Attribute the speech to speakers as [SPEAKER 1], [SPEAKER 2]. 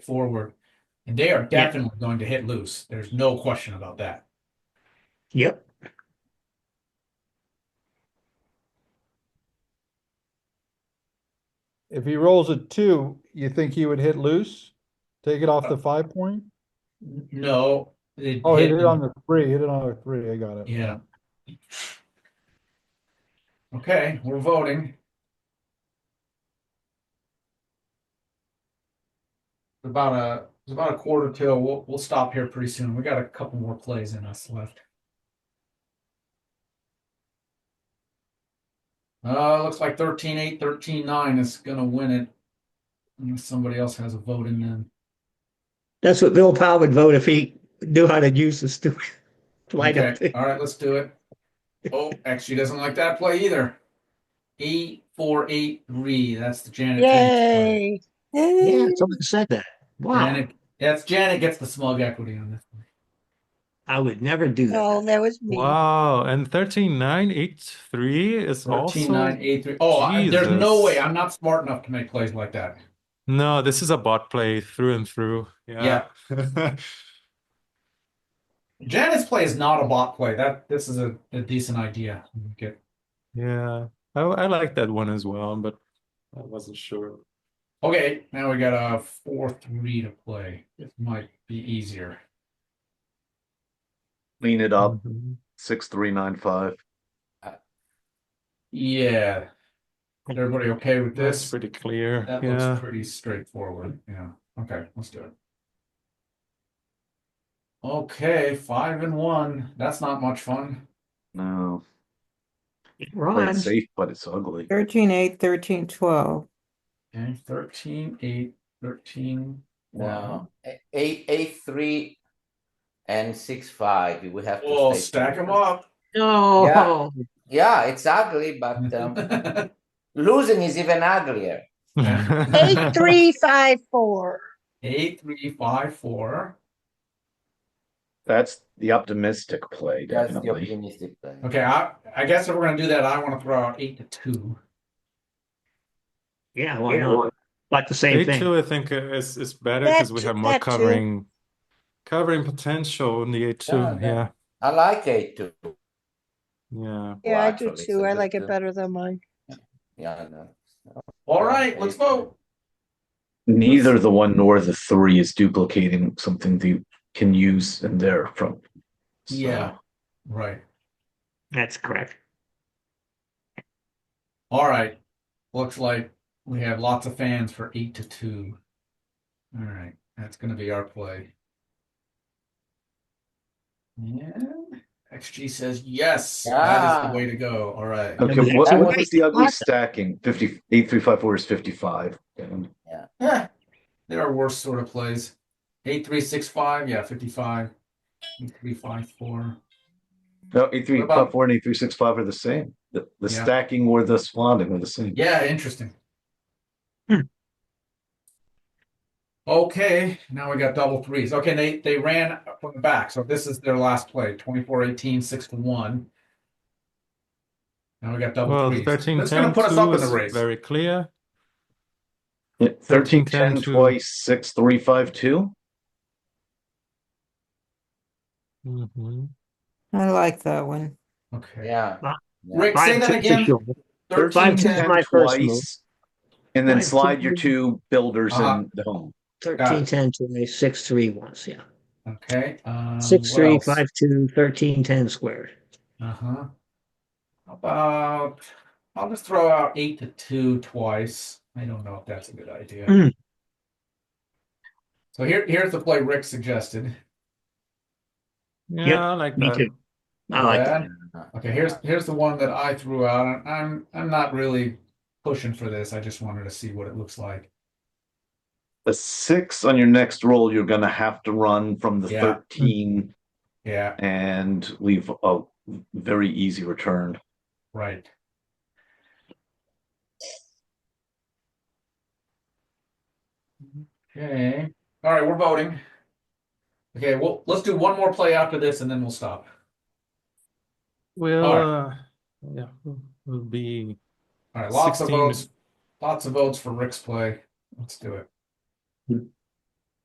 [SPEAKER 1] forward. And they are
[SPEAKER 2] Yeah.
[SPEAKER 1] definitely going to hit loose. There's no question about that.
[SPEAKER 2] Yep.
[SPEAKER 3] If he rolls a two, you think he would hit loose? Take it off the five point?
[SPEAKER 1] N- No. it
[SPEAKER 3] Oh, he
[SPEAKER 1] hit-
[SPEAKER 3] hit it on the three, hit it on the three, I got it.
[SPEAKER 1] Yeah. Okay, we're voting. About a, it's about a quarter till, we'll, we'll stop here pretty soon. We got a couple more plays in us left. Uh, looks like thirteen eight, thirteen nine is gonna win it. Unless somebody else has a vote in them.
[SPEAKER 2] That's what Bill Powell would vote if he knew how to use the stupid lineup.
[SPEAKER 1] Okay, all right, let's do it. Oh, actually doesn't like that play either. Eight, four, eight, three. That's the Janet. James play.
[SPEAKER 4] Yay!
[SPEAKER 2] Yeah, someone said that. Wow,
[SPEAKER 1] Janet, that's Janet gets the smug equity on this. one.
[SPEAKER 2] I would never do
[SPEAKER 4] Oh,
[SPEAKER 2] that.
[SPEAKER 4] that was me.
[SPEAKER 5] Wow, and 13983 is
[SPEAKER 1] Thirteen,
[SPEAKER 5] also
[SPEAKER 1] nine, eight, three. Oh, I- there's no
[SPEAKER 5] Jesus.
[SPEAKER 1] way. I'm not smart enough to make plays like that.
[SPEAKER 5] No, this is a bot play through and through. Yeah.
[SPEAKER 1] Janet's play is not a bot play. That this is a, a decent idea. Get
[SPEAKER 5] Yeah. I I like that one as well, but I wasn't sure.
[SPEAKER 1] Okay, now we got a four, three to play. This might be easier.
[SPEAKER 6] Clean it up.
[SPEAKER 5] Mhm.
[SPEAKER 6] Six three nine five.
[SPEAKER 1] Yeah. Is everybody okay with
[SPEAKER 5] That's
[SPEAKER 1] this?
[SPEAKER 5] pretty clear.
[SPEAKER 1] That
[SPEAKER 5] Yeah.
[SPEAKER 1] looks pretty straightforward. Yeah. Okay, let's do it. Okay, five and one. That's not much fun.
[SPEAKER 6] No, play
[SPEAKER 2] Ron,
[SPEAKER 6] it safe, but it's ugly.
[SPEAKER 7] Thirteen, eight, thirteen, twelve.
[SPEAKER 1] Okay, 13, 8, 13.
[SPEAKER 8] No, e- eight, eight, three, and six, five. You will have to
[SPEAKER 1] Oh,
[SPEAKER 8] stay
[SPEAKER 1] stack them
[SPEAKER 8] focused.
[SPEAKER 1] up.
[SPEAKER 2] no.
[SPEAKER 8] Yeah, it's ugly, but um, losing is even uglier.
[SPEAKER 4] Eight, three, five, four.
[SPEAKER 1] 8, 3, 5, 4.
[SPEAKER 6] That's the optimistic play,
[SPEAKER 8] That's the
[SPEAKER 6] definitely.
[SPEAKER 8] optimistic play.
[SPEAKER 1] Okay, I, I guess if we're going to do that, I want to throw out 8 to 2.
[SPEAKER 2] Yeah, why not? Like the same
[SPEAKER 5] Eight
[SPEAKER 2] thing.
[SPEAKER 5] two, I think, uh, is is better
[SPEAKER 4] That
[SPEAKER 5] because we
[SPEAKER 4] too-
[SPEAKER 5] have more
[SPEAKER 4] that too.
[SPEAKER 5] covering covering potential in the eight two.
[SPEAKER 8] Yeah,
[SPEAKER 5] Yeah.
[SPEAKER 8] that- I like eight, two.
[SPEAKER 5] Yeah.
[SPEAKER 4] Yeah, I do
[SPEAKER 8] actually, it's
[SPEAKER 4] too. I
[SPEAKER 8] a good,
[SPEAKER 4] like
[SPEAKER 8] uh,
[SPEAKER 4] it better than mine.
[SPEAKER 8] Yeah, I know.
[SPEAKER 1] All right, let's vote.
[SPEAKER 6] Neither the one nor the three is duplicating something they can use in there from. So,
[SPEAKER 1] Yeah. Right.
[SPEAKER 2] That's correct.
[SPEAKER 1] All right. Looks like we have lots of fans for eight to two. All right. That's going to be our play. And XG says yes. That is
[SPEAKER 8] Yeah.
[SPEAKER 1] the way to go. All right.
[SPEAKER 6] Okay, what,
[SPEAKER 2] That
[SPEAKER 6] what
[SPEAKER 2] was-
[SPEAKER 6] was the ugly
[SPEAKER 2] what?
[SPEAKER 6] stacking? Fifty, eight, three, five, four is fifty-five. And
[SPEAKER 1] Eh, there are worse sort of plays. Eight three six five. Yeah, fifty-five. Eight three five four.
[SPEAKER 6] No, eight, three,
[SPEAKER 1] What about-
[SPEAKER 6] five, four and eight, three, six, five are the same. The, the
[SPEAKER 1] Yeah.
[SPEAKER 6] stacking or the swanning are the same.
[SPEAKER 1] Yeah, interesting.
[SPEAKER 2] Hmm.
[SPEAKER 1] Okay, now we got double threes. Okay, they they ran from the back, so this is their last play. 24-18, 6 to 1. Now we got double
[SPEAKER 5] Well,
[SPEAKER 1] threes.
[SPEAKER 5] thirteen
[SPEAKER 1] That's
[SPEAKER 5] ten
[SPEAKER 1] gonna put us up
[SPEAKER 5] two
[SPEAKER 1] in the
[SPEAKER 5] is
[SPEAKER 1] race.
[SPEAKER 5] very clear.
[SPEAKER 6] Yeah, Thirteen,
[SPEAKER 5] 10,
[SPEAKER 6] ten,
[SPEAKER 5] two.
[SPEAKER 6] twice, six, three, five, two.
[SPEAKER 5] Mhm.
[SPEAKER 7] I like that one.
[SPEAKER 1] Okay.
[SPEAKER 8] Yeah.
[SPEAKER 2] Wow.
[SPEAKER 1] Rick, say
[SPEAKER 2] Five
[SPEAKER 1] that
[SPEAKER 2] six
[SPEAKER 1] again.
[SPEAKER 2] is your-
[SPEAKER 1] 13,
[SPEAKER 2] Five, two,
[SPEAKER 1] 10.
[SPEAKER 2] my first move.
[SPEAKER 6] Twice. And then
[SPEAKER 2] Five, two,
[SPEAKER 6] slide your
[SPEAKER 2] three.
[SPEAKER 6] two builders
[SPEAKER 1] Uh-huh.
[SPEAKER 6] in the home.
[SPEAKER 2] Thirteen, ten, twenty, six, three, once, yeah.
[SPEAKER 1] Okay. Um,
[SPEAKER 2] Six,
[SPEAKER 1] what
[SPEAKER 2] three,
[SPEAKER 1] else?
[SPEAKER 2] five, two, thirteen, ten squared.
[SPEAKER 1] Uh-huh. How About I'll just throw out eight to two twice. I don't know if that's a good idea.
[SPEAKER 2] Hmm.
[SPEAKER 1] So here here's the play Rick suggested.
[SPEAKER 5] Yeah, I like
[SPEAKER 2] me
[SPEAKER 5] that.
[SPEAKER 2] too. I like that.
[SPEAKER 1] Okay, here's here's the one that I threw out. and I'm I'm not really pushing for this. I just wanted to see what it looks like.
[SPEAKER 6] a six on your next roll, you're going to have to run from the
[SPEAKER 1] Yeah.
[SPEAKER 6] 13
[SPEAKER 1] Yeah,
[SPEAKER 6] and leave a very easy return.
[SPEAKER 1] right. Okay. All right, we're voting. Okay, well, let's do one more play after this and then we'll stop.
[SPEAKER 5] We'll
[SPEAKER 1] All
[SPEAKER 5] uh, yeah, we'll- we'll be
[SPEAKER 1] All right, lots
[SPEAKER 5] 16.
[SPEAKER 1] of votes. Lots of votes for Rick's play. Let's do it.